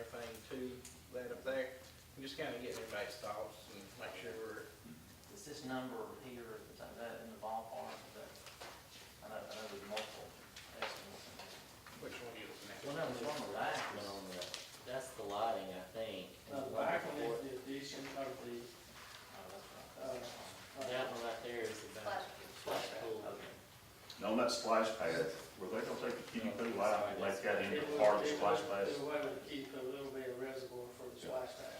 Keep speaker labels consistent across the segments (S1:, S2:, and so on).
S1: to that up there. And just kind of getting everybody's thoughts and make sure we're,
S2: Is this number here, is that that in the ballpark, is that, I know, I know there's multiple estimates. Oh,
S1: which one you looking
S2: Well, no, there's one with that.
S3: But on the, that's the lighting, I think.
S4: Now, Uh, the back one is the addition of the, uh,
S3: That one right there is the back. Flash
S2: Oh,
S3: pool.
S5: And on that splash pad, were they gonna take the kiddie pool out and let that into part of the splash pad?
S4: There's a way to keep a little bit of reservoir for the splash pad.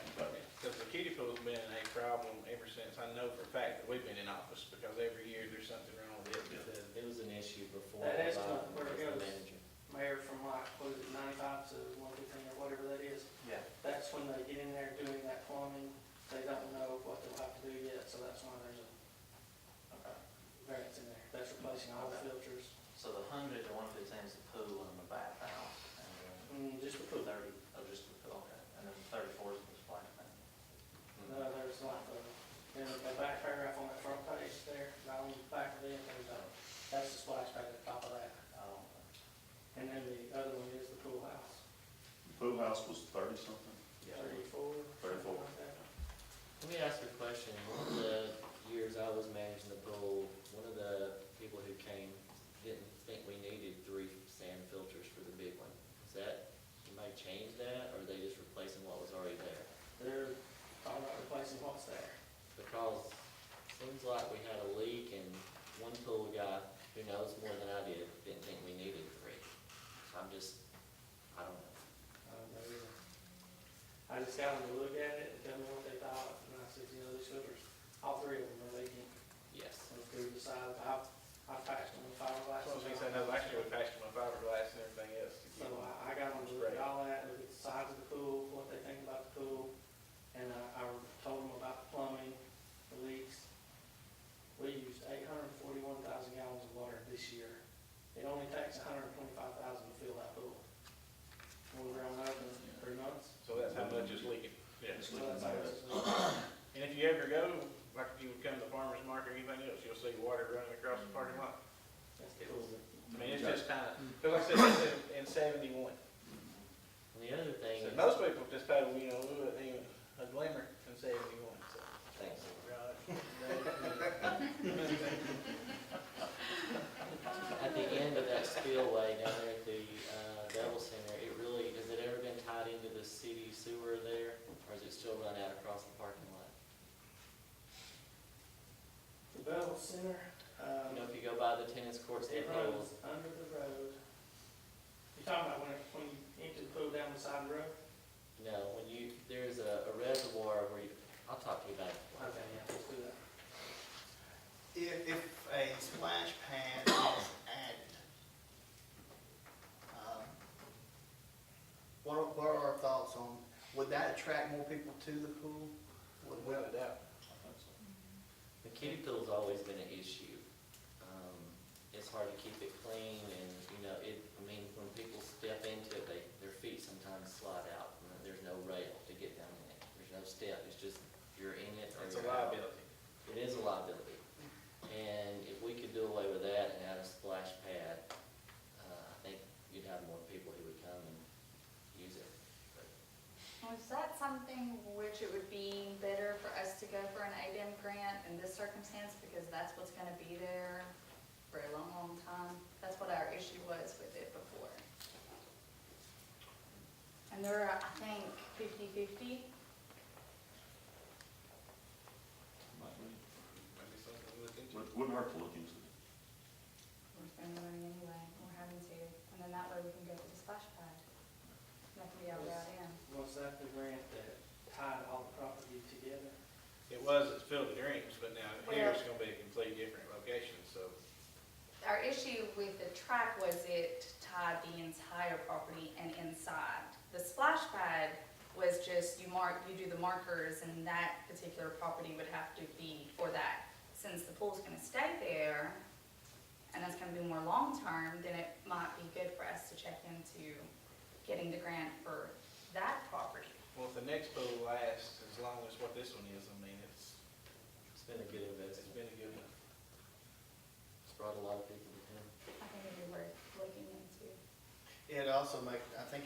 S1: Because the kiddie pool's been a problem ever since, I know for a fact that we've been in office, because every year there's something wrong with it.
S5: Yeah.
S1: because
S3: It was an issue before.
S4: That
S3: the
S4: is
S3: lighting
S4: not where it
S3: was the
S4: goes.
S3: manager.
S4: Mayor from like, what is it, ninety-five to one fifteen or whatever that is,
S2: Yeah,
S4: that's when they get in there doing that plumbing. They don't know what they'll have to do yet, so that's why there's a
S2: okay.
S4: variance in there. That's replacing all the filters.
S2: So the hundred and one fifteen is the pool and the bathhouse, and then
S4: Mm, just the
S2: the
S4: pool.
S2: thirty, oh, just the pool, okay, and then the thirty-four is the splash pad.
S4: No, there's like the, then the back paragraph on that front page there, not on the back of it, there's a, that's the splash pad at the top of that.
S2: Oh,
S4: And then the other one is the pool house.
S5: Pool house was thirty something?
S4: Thirty-four. something
S5: Thirty-four.
S4: like that.
S3: Let me ask you a question. One of the years I was managing the pool, one of the people who came didn't think we needed three sand filters for the big one. Is that, somebody changed that, or are they just replacing what was already there?
S4: They're talking about replacing what's there.
S3: Because seems like we had a leak and one pool guy who knows more than I did didn't think we needed three. So I'm just, I don't know.
S4: I don't know either. Uh, I just got them to look at it and tell me what they thought, and I said, you know, these filters, all three of them are leaking.
S3: Yes.
S4: And through the side, I, I patched them with fiberglass.
S1: So, since I know last year we patched my fiberglass and everything else to
S4: So
S1: keep.
S4: I, I got them to look at all that, look at the size of the pool, what they think about the pool, and uh, I, I told them about the plumbing, the leaks. We used eight hundred and forty-one thousand gallons of water this year. It only takes hundred and twenty-five thousand to fill that pool. We were on open three months.
S1: So that's how much is leaking. Yeah.
S5: It's
S4: so
S5: looking
S4: that's
S5: bad.
S4: how it's-
S1: And if you ever go, like if you would come to the farmer's market or anything else, you'll see water running across the parking lot.
S4: That's the pool.
S1: I mean, it's just kind of, because like I said, it's in- in seventy-one.
S3: And the other thing,
S1: So
S3: is-
S1: most people just pay, you know, we wouldn't even a glimmer in seventy-one, so.
S2: thanks.
S3: at the end of that spillway down there at the uh, Devil Center, it really, has it ever been tied into the city sewer there? Or is it still run out across the parking lot?
S4: The Bell Center, um.
S3: You know, if you go by the tennis courts,
S4: It
S3: it
S4: runs
S3: rolls.
S4: under the road. You talking about when, it- when you empty the pool down the side of the road?
S3: No, when you, there's a a reservoir where you, I'll talk to you about it.
S4: Okay, yeah, let's do that.
S6: If, if a splash pad is added, um, what are, what are our thoughts on, would that attract more people to the pool? Would- would-
S1: Without a doubt.
S3: The kiddie pool's always been an issue. Um, It's hard to keep it clean and, you know, it, I mean, when people step into it, they, their feet sometimes slide out. and There's no rail to get down in it. There's no step. It's just, you're in it or
S1: It's a
S3: you're out.
S1: liability.
S3: It is a liability. And if we could do away with that and add a splash pad, uh, I think you'd have more people who would come and use it. But
S7: Was that something which it would be better for us to go for an ADM grant in this circumstance, because that's what's gonna be there for a long, long time? That's what our issue was with it before. And there are, I think, fifty-fifty,
S1: Maybe something to look into.
S5: Wouldn't- Wouldn't hurt to look into it.
S7: we're spending money anyway, we're having to, and then that way we can go to the splash pad. That can be our route in.
S4: Was that the grant that tied all the property together?
S1: It was, it's filled with dreams, but now here it's gonna be a completely different location, so.
S7: Our issue with the track was it tied the entire property and inside. The splash pad was just you mark, you do the markers and that particular property would have to be for that. Since the pool's gonna stay there and that's gonna be more long-term, then it might be good for us to check into getting the grant for that property.
S1: Well, if the next pool lasts as long as what this one is, I mean, it's,
S3: It's been a good
S1: it's
S3: investment.
S1: been a good one.
S3: It's brought a lot of people to town.
S7: I think it'd be worth looking into.
S6: It'd also make, I think